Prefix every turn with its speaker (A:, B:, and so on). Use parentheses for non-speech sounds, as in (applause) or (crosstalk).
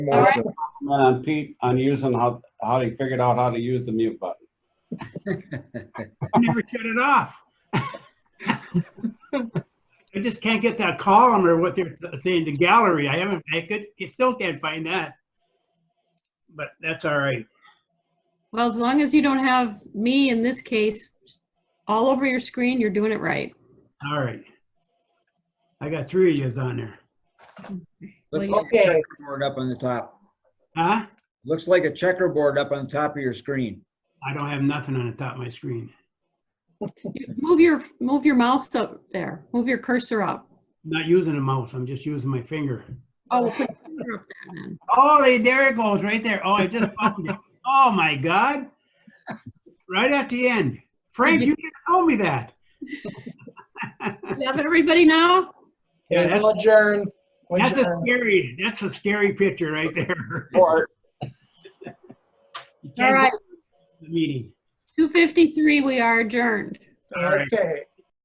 A: Motion comment on Pete on using how, how he figured out how to use the mute button.
B: never shut it off. I just can't get that column or what they're saying, the gallery. I haven't, I could, I still can't find that. But that's all right.
C: Well, as long as you don't have me in this case all over your screen, you're doing it right.
B: All right. I got three of yous on there.
C: Well,
D: Looks
C: you-
D: like a
E: Okay.
D: checkerboard up on the top.
B: Huh?
D: Looks like a checkerboard up on top of your screen.
B: I don't have nothing on the top of my screen.
C: you- Move your, move your mouse up there. Move your cursor up.
B: Not using a mouse. I'm just using my finger.
C: Oh, (laughs) we'll put your finger up there then.
B: Oh, they- there it goes, right there. Oh, I just (laughs) found it. Oh, my God. Right at the end. Frank, you should have told me that.
C: You Have everybody now?
B: Yeah,
E: Yeah, we'll adjourn. We
B: That's a
E: adjourn.
B: scary, that's a scary picture right there.
E: Or-
B: (laughs) You
C: All
B: can't
C: right,
B: go to the Meeting.
C: 2:53, we are adjourned.
B: All right.
E: Okay,